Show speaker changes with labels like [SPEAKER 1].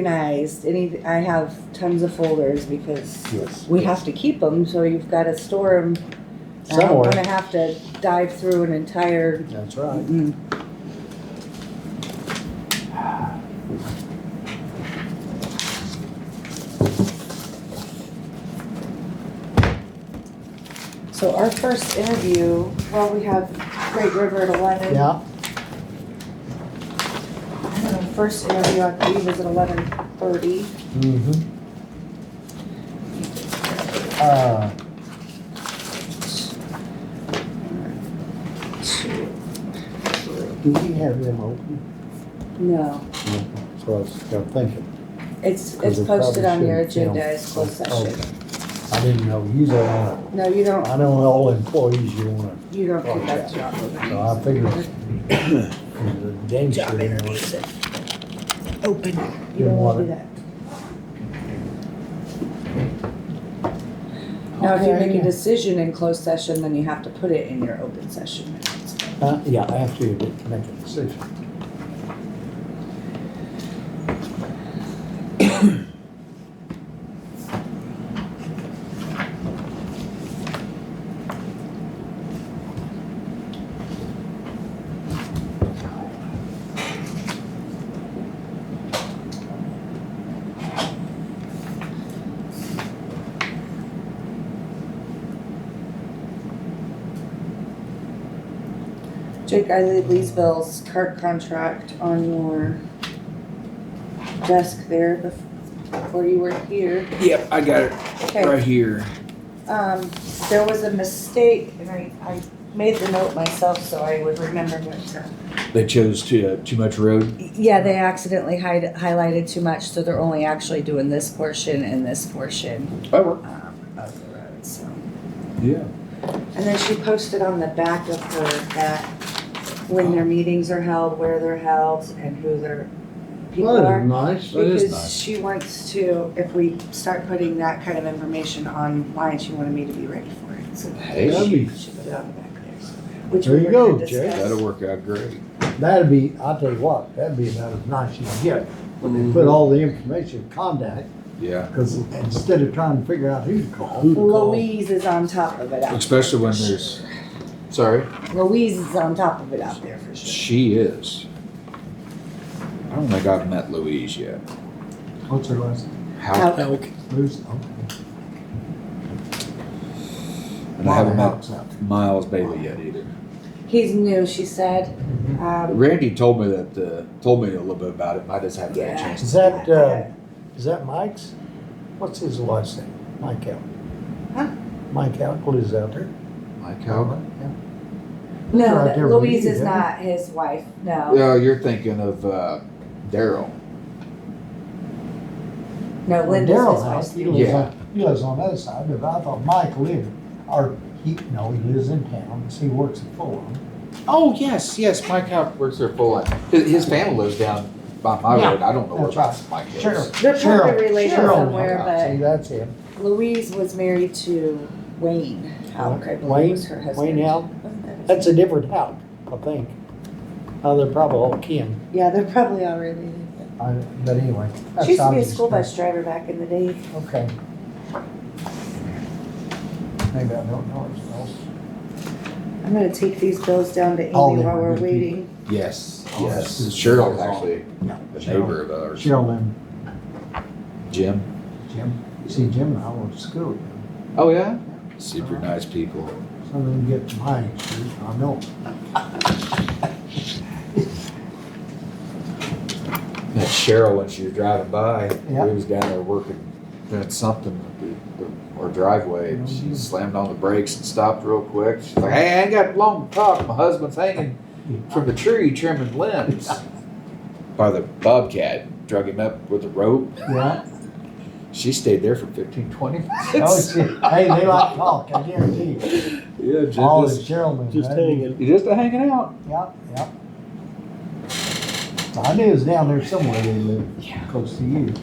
[SPEAKER 1] organized. Any, I have tons of folders because
[SPEAKER 2] Yes.
[SPEAKER 1] we have to keep them, so you've got to store them. I don't want
[SPEAKER 2] Somewhere.
[SPEAKER 1] to have to dive through an entire.
[SPEAKER 2] That's right.
[SPEAKER 1] Mm. So our first interview, well, we have Great River at eleven.
[SPEAKER 2] Yeah,
[SPEAKER 1] I don't know, First interview, I believe, was at eleven thirty.
[SPEAKER 2] mm-hmm. Uh, do we have them open?
[SPEAKER 1] No,
[SPEAKER 2] That's what Mm-hmm. I was kinda thinking.
[SPEAKER 1] it's,
[SPEAKER 2] 'cause
[SPEAKER 1] it's
[SPEAKER 2] we probably
[SPEAKER 1] posted on your
[SPEAKER 2] should, you know.
[SPEAKER 1] agenda as closed session.
[SPEAKER 2] Okay. I didn't know, usually, I don't-
[SPEAKER 1] No, you don't,
[SPEAKER 2] I know all employees you wanna,
[SPEAKER 1] you don't do that job.
[SPEAKER 2] so I figured. the dentist didn't want-
[SPEAKER 1] Open. You
[SPEAKER 2] Didn't
[SPEAKER 1] don't
[SPEAKER 2] want
[SPEAKER 1] wanna do
[SPEAKER 2] it.
[SPEAKER 1] that. Now, if you make a decision in closed session, then you have to put it in your open session minutes.
[SPEAKER 2] Uh, yeah, after you did make a decision.
[SPEAKER 1] Jake, I laid Leesville's cart contract on your desk there bef- before you were here.
[SPEAKER 3] Yep, I got it
[SPEAKER 1] Okay.
[SPEAKER 3] right here.
[SPEAKER 1] Um, there was a mistake, and I, I made the note myself so I would remember what to.
[SPEAKER 3] They chose to, uh, too much road.
[SPEAKER 1] Yeah, they accidentally hide, highlighted too much, so they're only actually doing this portion and this portion,
[SPEAKER 3] Oh,
[SPEAKER 1] um, of the road, so.
[SPEAKER 3] yeah.
[SPEAKER 1] And then she posted on the back of her that when their meetings are held, where they're held, and who their people are.
[SPEAKER 2] nice. That is
[SPEAKER 1] Because
[SPEAKER 2] nice.
[SPEAKER 1] she wants to, if we start putting that kind of information online, she wanted me to be ready for it, so.
[SPEAKER 2] That'd
[SPEAKER 3] Hey,
[SPEAKER 2] be,
[SPEAKER 1] She put it on the back there, so- which
[SPEAKER 2] There
[SPEAKER 1] we
[SPEAKER 2] you
[SPEAKER 1] were gonna
[SPEAKER 2] go, Jay.
[SPEAKER 1] discuss.
[SPEAKER 3] that'll work out great.
[SPEAKER 2] that'd be, I'll tell you what, that'd be about as nice as you get. They
[SPEAKER 3] Mm-hmm.
[SPEAKER 2] put all the information, contact,
[SPEAKER 3] Yeah,
[SPEAKER 2] because instead of trying to figure out who to call. who to call,
[SPEAKER 1] Louise is on top of it. out there.
[SPEAKER 3] especially when there's, sorry,
[SPEAKER 1] Louise is on top of it out there for sure.
[SPEAKER 3] she is. I don't think I've met Louise yet.
[SPEAKER 2] What's her last? name?
[SPEAKER 3] How?
[SPEAKER 1] How-
[SPEAKER 2] Bruce? Okay.
[SPEAKER 3] And I haven't met
[SPEAKER 2] Helps out.
[SPEAKER 3] Miles Bailey yet either.
[SPEAKER 1] He's new, she said. Um,
[SPEAKER 3] Randy told me that, uh, told me a little bit about it, but I just haven't had a
[SPEAKER 1] Yeah.
[SPEAKER 3] chance.
[SPEAKER 2] Is that, uh, is that Mike's? What's his last name? Mike Allen?
[SPEAKER 1] Huh?
[SPEAKER 2] Mike Allen lives out there.
[SPEAKER 3] Mike Calvin?
[SPEAKER 1] no,
[SPEAKER 2] Right
[SPEAKER 1] that-
[SPEAKER 2] there with
[SPEAKER 1] Louise
[SPEAKER 2] you,
[SPEAKER 1] is
[SPEAKER 2] isn't it?
[SPEAKER 1] not his wife.
[SPEAKER 2] Oh.
[SPEAKER 1] No,
[SPEAKER 3] Yeah, you're thinking of, uh, Daryl.
[SPEAKER 1] no, Uh, Linda's
[SPEAKER 2] Daryl's
[SPEAKER 1] his
[SPEAKER 2] house,
[SPEAKER 1] wife.
[SPEAKER 2] he lives
[SPEAKER 3] Yeah.
[SPEAKER 2] on, he lives on the other side, but I thought Mike lived, or he, no, he lives in town, 'cause he works at Fulham.
[SPEAKER 3] Oh, yes, yes, Mike Calvin works there full on. His, his family lives down by my
[SPEAKER 2] Yeah,
[SPEAKER 3] road. I don't know where
[SPEAKER 2] that's right.
[SPEAKER 3] Mike is.
[SPEAKER 2] Sure.
[SPEAKER 1] They're
[SPEAKER 2] Cheryl-
[SPEAKER 1] probably related
[SPEAKER 2] Cheryl.
[SPEAKER 1] somewhere,
[SPEAKER 2] See,
[SPEAKER 1] but
[SPEAKER 2] that's him.
[SPEAKER 1] Louise was married to Wayne Oh, Halk, I believe
[SPEAKER 2] Wayne-
[SPEAKER 1] was her husband.
[SPEAKER 2] Wayne Al,
[SPEAKER 1] Wasn't that his-
[SPEAKER 2] that's a different house, I think. Oh, they're probably all kin,
[SPEAKER 1] Yeah, they're probably all related.
[SPEAKER 2] I- but anyway. that's
[SPEAKER 1] She used to be a
[SPEAKER 2] obvious
[SPEAKER 1] school
[SPEAKER 2] now.
[SPEAKER 1] bus driver back in the day.
[SPEAKER 2] Okay. Maybe I don't know his house.
[SPEAKER 1] I'm gonna take these bills down to Amy
[SPEAKER 2] All they
[SPEAKER 1] while
[SPEAKER 2] were
[SPEAKER 1] we're
[SPEAKER 2] good
[SPEAKER 1] waiting.
[SPEAKER 3] Yes,
[SPEAKER 2] Oh,
[SPEAKER 3] yes.
[SPEAKER 2] this is-
[SPEAKER 3] Cheryl's actually
[SPEAKER 2] No,
[SPEAKER 3] a
[SPEAKER 2] Cheryl.
[SPEAKER 3] neighbor of ours.
[SPEAKER 2] Cheryl and
[SPEAKER 3] Jim.
[SPEAKER 2] Jim, see, Jim and I went to school. together.
[SPEAKER 3] Oh, yeah? Super nice people.
[SPEAKER 2] Some of them get to my age, I know.
[SPEAKER 3] Met Cheryl when she was driving by.
[SPEAKER 2] Yeah.
[SPEAKER 3] We was down there working, doing something with the, the, our driveway, and
[SPEAKER 2] Mm-hmm.
[SPEAKER 3] she slammed on the brakes and stopped real quick. She's like, "Hey, I ain't got long to talk. My husband's hanging from the tree trimming limbs." By the bobcat, drug him up with a rope.
[SPEAKER 2] Yeah.
[SPEAKER 3] She stayed there for 15, 20 minutes.
[SPEAKER 2] Oh, shit. Hey, they like talk, I guarantee you.
[SPEAKER 3] yeah, Jim
[SPEAKER 2] All
[SPEAKER 3] just,
[SPEAKER 2] is gentlemen.
[SPEAKER 4] Just
[SPEAKER 2] right?
[SPEAKER 4] hanging.
[SPEAKER 3] you just hanging out.
[SPEAKER 2] Yep, yep. I knew it was down there somewhere they lived,
[SPEAKER 3] Yeah.
[SPEAKER 2] close to you.